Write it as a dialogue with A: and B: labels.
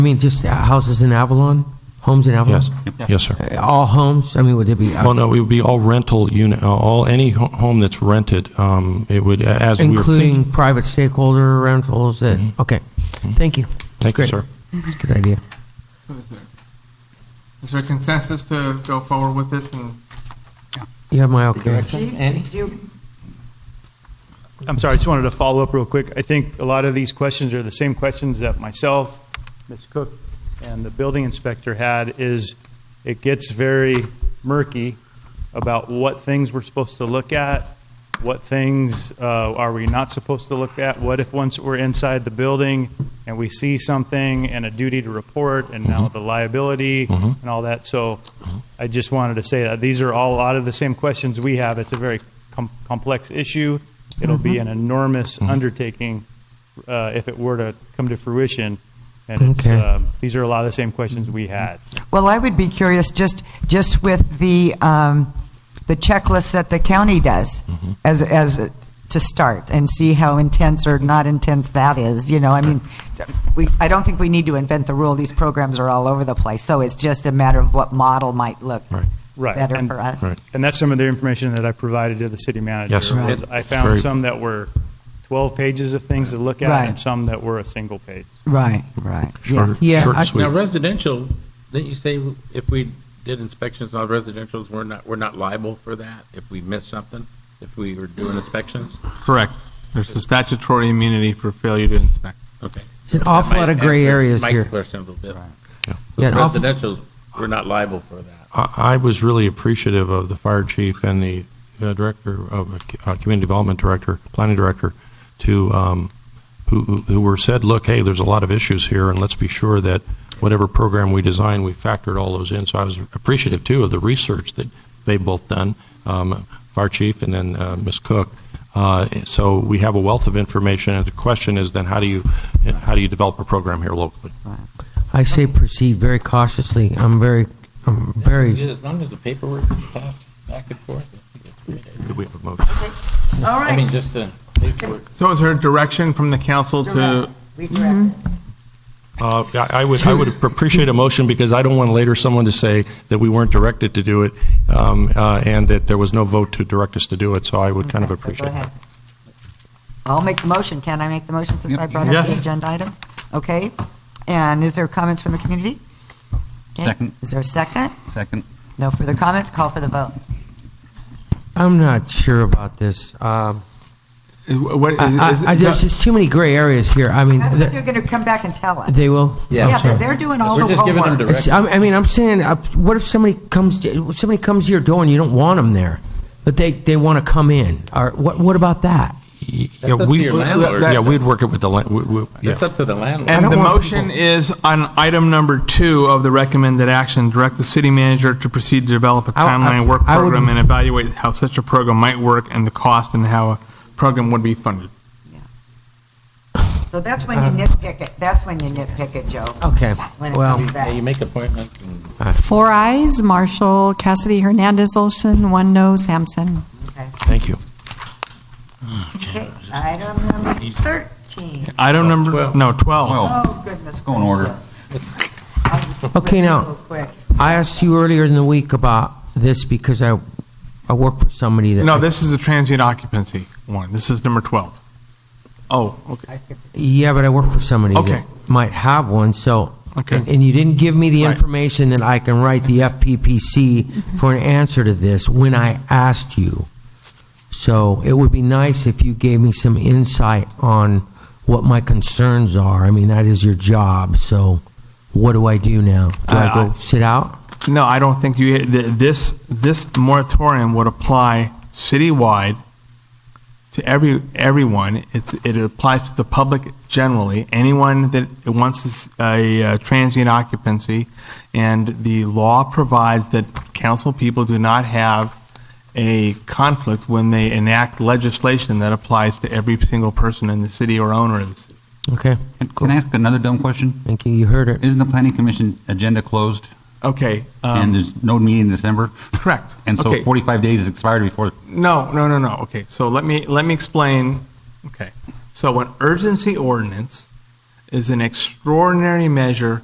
A: I mean, just uh, houses in Avalon, homes in Avalon?
B: Yes, yes, sir.
A: Uh, All homes, I mean, would there be, uh,
B: Well, no, it would be all rental unit, uh, all, any ho- home that's rented, um, it would, as we were thinking.
A: including private stakeholder rentals that, okay, thank you.
B: Thank you,
A: Great.
B: sir.
A: That's a good idea.
C: So is there, is there consensus to go forward with this and
A: You have my okay.
D: I'm sorry, I just wanted to follow up real quick. I think a lot of these questions are the same questions that myself, Ms. Cook, and the building inspector had, is it gets very murky about what things we're supposed to look at, what things uh, are we not supposed to look at, what if once we're inside the building and we see something and a duty to report and now the liability and all that. So I just wanted to say that these are all a lot of the same questions we have. It's a very com- complex issue. It'll be
B: Mm-hmm.
D: an enormous
B: Mm.
D: undertaking uh, if it were to come to fruition. And it's,
A: Okay.
D: um, these are a lot of the same questions we
B: Mm-hmm.
D: had.
E: Well, I would be curious, just, just with the, um, the checklist that the county does
B: Mm-hmm.
E: as, as, to start and see how intense or not intense that is, you know, I mean, we, I don't think we need to invent the rule. These programs are all over the place. So it's just a matter of what model might look
B: Right.
D: Right.
E: better
D: And-
E: for us.
B: Right.
D: And that's some of the information that I provided to the city manager.
B: Yes. Right.
D: was I
B: Very-
D: found some that were 12 pages of things to look at
E: Right.
D: and some that were a single page.
E: Right, right.
B: Short-
E: Yes.
A: Yeah,
B: short and
A: I-
B: sweet.
F: Now residential, didn't you say if we did inspections on residentials, we're not, we're not liable for that if we missed something? If we were doing inspections?
C: Correct. There's a statutory immunity for failure to inspect.
F: Okay.
A: It's an awful lot of gray areas
F: Mike's
A: here.
F: question a little bit.
A: Yeah, an awful-
F: Residentials, we're not liable for that.
B: I I was really appreciative of the fire chief and the uh, director of, uh, community development director, planning director, to, um, who, who- who were said, look, hey, there's a lot of issues here, and let's be sure that whatever program we design, we factored all those in. So I was appreciative, too, of the research that they've both done, um, fire chief and then uh, Ms. Cook. Uh, So we have a wealth of information, and the question is then, how do you, how do you develop a program here locally?
A: I say proceed very cautiously. I'm very, I'm very,
F: As long as the paperwork is passed back and forth.
B: Could we have a motion?
E: All
F: I mean,
E: right.
F: just uh, the paperwork.
C: So is there direction from the council to,
E: Direct. We direct.
B: Uh, I I would, I would appreciate a motion, because I don't want later someone to say that we weren't directed to do it, um, uh, and that there was no vote to direct us to do it, so I would kind of
E: Okay, so go
B: appreciate
E: ahead.
B: that.
E: I'll make the motion. Can I make the motion since I brought up the
C: Yes.
E: agenda item? Okay. And is there comments from the community? Okay.
G: Second.
E: Is there a second?
G: Second.
E: No further comments. Call for the vote.
A: I'm not sure about this. Um,
C: is- what?
A: I,
C: is-
A: I, I- there's just too many gray areas here. I mean,
E: I think they're
A: th-
E: going to come back and tell us.
A: they will.
F: Yeah.
A: I'm
E: Yeah,
A: sorry.
E: they're, they're doing all
F: We're
E: the
F: just giving them
E: homework.
A: It's-
F: direction.
A: I'm- I mean, I'm saying, uh, what if somebody comes, to- somebody comes to your door and you don't want them there, but they, they want to come in? Or what, what about that?
B: Yeah,
F: up
B: we-
F: to your landlord.
B: Yeah, we'd work it with the, lan- we- we- yeah.
F: It's up to the landlord.
A: I don't
C: And the
A: want
C: motion is on item number two of the recommended action, direct the city manager to proceed to develop a
A: I- I-
C: timeline work
A: I would-
C: program and evaluate how such a program might work and the cost and how a program would be funded.
E: So that's when you nitpick it. That's when you nitpick it, Joe.
A: Uh-huh. Okay,
E: When it
A: well-
E: comes
F: Yeah, You
E: back.
F: make appointments and
H: Four eyes, Marshall, Cassidy, Hernandez, Olson, one no, Sampson.
B: Thank you.
E: Okay, Item number 13.
C: Item number, no, 12.
G: Well,
E: Oh, goodness
G: Go in order.
E: gracious. I'll just flip
A: Okay,
E: through
A: now-
E: real quick.
A: I asked you earlier in the week about this because I, I work for somebody that.
C: No, this is a transient occupancy one. This is number 12. Oh, okay.
E: I skipped
A: Yeah, but I work for somebody
C: Okay.
A: that might have one, so.
C: Okay.
A: And, and you didn't give me the
C: Right.
A: information that I can write the FPPC for an answer to this when I asked you. So it would be nice if you gave me some insight on what my concerns are. I mean, that is your job, so what do I do now? Do I
C: Uh, I-
A: go sit out?
C: No, I don't think you, th- this, this moratorium would apply citywide to every, everyone. It, it applies to the public generally, anyone that wants this- a uh, transient occupancy. And the law provides that council people do not have a conflict when they enact legislation that applies to every single person in the city or owner of the city.
A: Okay,
G: Can I ask another dumb question?
A: thank you, you heard it.
G: Isn't the planning commission agenda closed
C: Okay.
G: and
C: um,
G: there's no meeting in December?
C: Correct.
G: And so
C: Okay.
G: 45 days expired before,
C: No, no, no, no. Okay, so let me let me explain. Okay, so an urgency ordinance is an extraordinary measure